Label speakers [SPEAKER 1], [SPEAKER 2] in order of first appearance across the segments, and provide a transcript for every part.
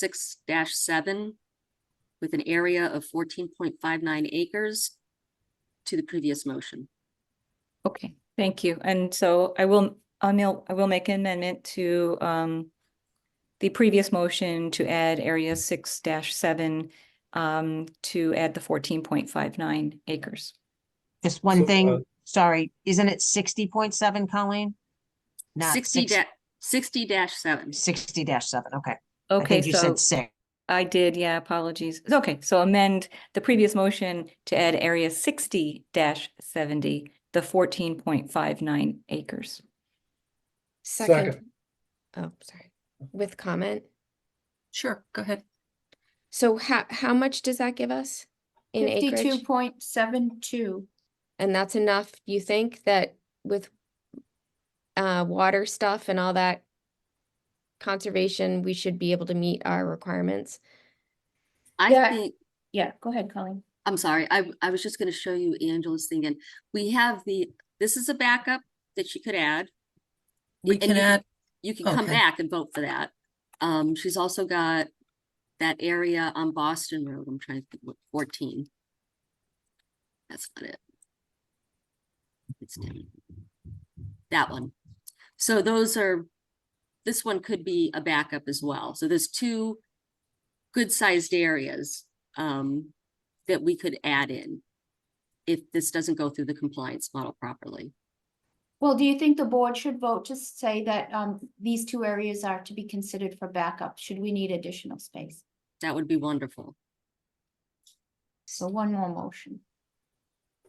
[SPEAKER 1] six seven with an area of fourteen point five nine acres to the previous motion.
[SPEAKER 2] Okay, thank you. And so I will, I will, I will make an amendment to um the previous motion to add area six dash seven um to add the fourteen point five nine acres.
[SPEAKER 3] Just
[SPEAKER 4] So,
[SPEAKER 3] one
[SPEAKER 4] uh,
[SPEAKER 3] thing, sorry, isn't it sixty point seven, Colleen? Not
[SPEAKER 1] Sixty
[SPEAKER 3] sixty,
[SPEAKER 1] da- sixty dash seven.
[SPEAKER 3] sixty dash seven, okay. I
[SPEAKER 2] Okay,
[SPEAKER 3] think you
[SPEAKER 2] so
[SPEAKER 3] said six.
[SPEAKER 2] I did, yeah, apologies. Okay, so amend the previous motion to add area sixty dash seventy, the fourteen point five nine acres.
[SPEAKER 4] Second.
[SPEAKER 5] Second. Oh, sorry, with comment.
[SPEAKER 1] Sure, go ahead.
[SPEAKER 5] So how, how much does that give us in
[SPEAKER 6] Fifty-two
[SPEAKER 5] acreage?
[SPEAKER 6] point seven two.
[SPEAKER 5] And that's enough, you think, that with uh, water stuff and all that conservation, we should be able to meet our requirements?
[SPEAKER 1] I
[SPEAKER 6] Yeah.
[SPEAKER 1] think,
[SPEAKER 6] Yeah, go ahead, Colleen.
[SPEAKER 1] I'm sorry, I, I was just gonna show you Angela's thing and we have the, this is a backup that she could add.
[SPEAKER 7] We
[SPEAKER 1] And
[SPEAKER 7] can
[SPEAKER 1] you-
[SPEAKER 7] add,
[SPEAKER 1] You can come
[SPEAKER 7] Okay.
[SPEAKER 1] back and vote for that. Um, she's also got that area on Boston Road, I'm trying to think, what, fourteen. That's not it. It's down. That one. So those are, this one could be a backup as well. So there's two good-sized areas, um, that we could add in if this doesn't go through the compliance model properly.
[SPEAKER 6] Well, do you think the board should vote to say that um these two areas are to be considered for backup? Should we need additional space?
[SPEAKER 1] That would be wonderful.
[SPEAKER 6] So one more motion.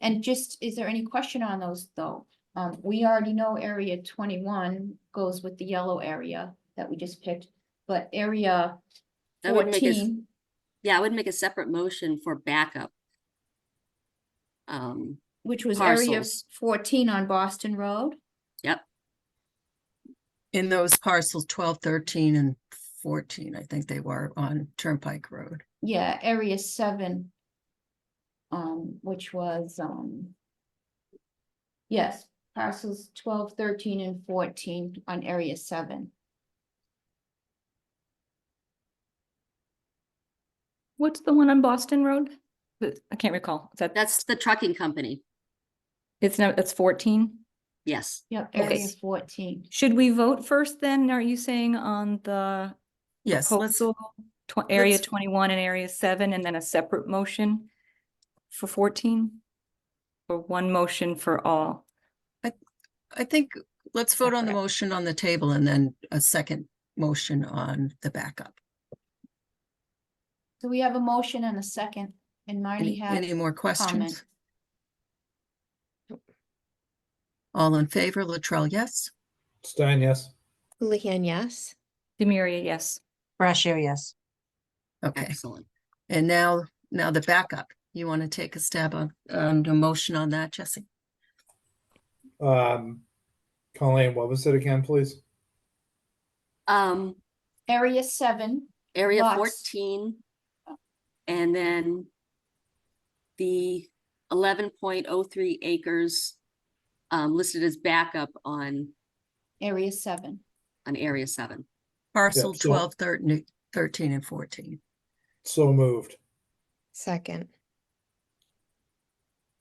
[SPEAKER 6] And just, is there any question on those though? Um, we already know area twenty-one goes with the yellow area that we just picked, but area
[SPEAKER 1] That would make us.
[SPEAKER 6] fourteen.
[SPEAKER 1] Yeah, I would make a separate motion for backup. Um,
[SPEAKER 6] Which was area
[SPEAKER 1] Parcels.
[SPEAKER 6] fourteen on Boston Road.
[SPEAKER 7] in those parcels, twelve, thirteen and fourteen, I think they were on Turnpike Road.
[SPEAKER 6] Yeah, area seven. Um, which was, um. Yes, parcels 12, 13, and fourteen on area seven.
[SPEAKER 2] What's the one on Boston Road? The- I can't recall. Is that,
[SPEAKER 1] that's the trucking company,
[SPEAKER 2] it's not, that's fourteen?
[SPEAKER 1] yes.
[SPEAKER 6] Yep,
[SPEAKER 2] Okay.
[SPEAKER 6] area fourteen.
[SPEAKER 2] Should we vote first then? Are you saying on the
[SPEAKER 7] Yes, let's,
[SPEAKER 2] proposal, tw- area
[SPEAKER 7] let's-
[SPEAKER 2] twenty-one and area seven, and then a separate motion for fourteen? Or one motion for all?
[SPEAKER 7] I think, let's vote on the
[SPEAKER 2] Separate.
[SPEAKER 7] motion on the table and then a second motion on the backup.
[SPEAKER 6] So we have a motion and a second, and Marty
[SPEAKER 7] Any,
[SPEAKER 6] had
[SPEAKER 7] any more questions?
[SPEAKER 6] comment.
[SPEAKER 7] All in favor, Latrell, yes?
[SPEAKER 4] Stein, yes.
[SPEAKER 5] Houlihan, yes?
[SPEAKER 2] Demiria, yes.
[SPEAKER 3] Fresh air, yes.
[SPEAKER 7] Okay,
[SPEAKER 1] Excellent.
[SPEAKER 7] and now, now the backup. You want to take a stab on, on the motion on that, Jesse?
[SPEAKER 4] Um, Colleen, what was it again, please?
[SPEAKER 1] Um,
[SPEAKER 6] Area seven,
[SPEAKER 1] area
[SPEAKER 6] Lots.
[SPEAKER 1] fourteen. And then the eleven point oh three acres um, listed as backup on,
[SPEAKER 6] area seven.
[SPEAKER 1] on area seven.
[SPEAKER 7] Parcel
[SPEAKER 4] so-
[SPEAKER 7] 12, 13 13 and fourteen.
[SPEAKER 4] So moved.
[SPEAKER 5] Second.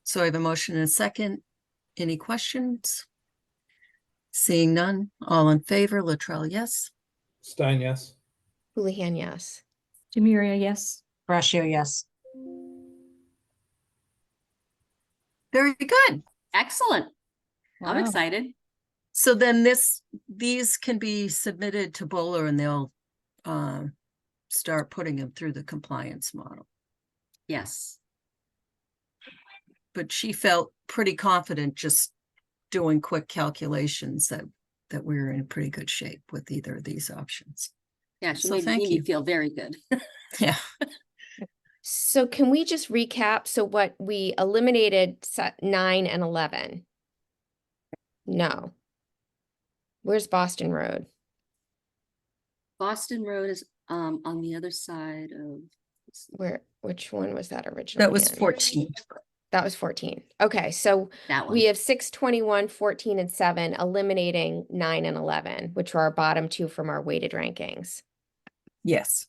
[SPEAKER 7] So I have a motion and a second. Any questions? Seeing none, all in favor, Latrell, yes?
[SPEAKER 4] Stein, yes.
[SPEAKER 5] Houlihan, yes?
[SPEAKER 2] Demiria, yes.
[SPEAKER 3] Fresh air, yes.
[SPEAKER 7] Very good.
[SPEAKER 1] Excellent. I'm
[SPEAKER 2] Wow.
[SPEAKER 1] excited.
[SPEAKER 7] So then this, these can be submitted to Bowler and they'll um start putting them through the compliance model.
[SPEAKER 1] Yes.
[SPEAKER 7] But she felt pretty confident just doing quick calculations that that we were in pretty good shape with either of these options.
[SPEAKER 1] Yeah, she
[SPEAKER 7] So
[SPEAKER 1] made made
[SPEAKER 7] thank
[SPEAKER 1] me
[SPEAKER 7] you.
[SPEAKER 1] feel very good.
[SPEAKER 7] Yeah.
[SPEAKER 5] So can we just recap? So what we eliminated se- nine and eleven? No. Where's Boston Road?
[SPEAKER 1] Boston Road is um, on the other side of,
[SPEAKER 5] Where, which one was that originally?
[SPEAKER 7] That was
[SPEAKER 5] in?
[SPEAKER 7] fourteen.
[SPEAKER 5] That was fourteen. Okay, so
[SPEAKER 1] that one.
[SPEAKER 5] we have six, twenty-one, fourteen, and seven, eliminating nine and eleven, which are our bottom two from our weighted rankings.
[SPEAKER 7] Yes.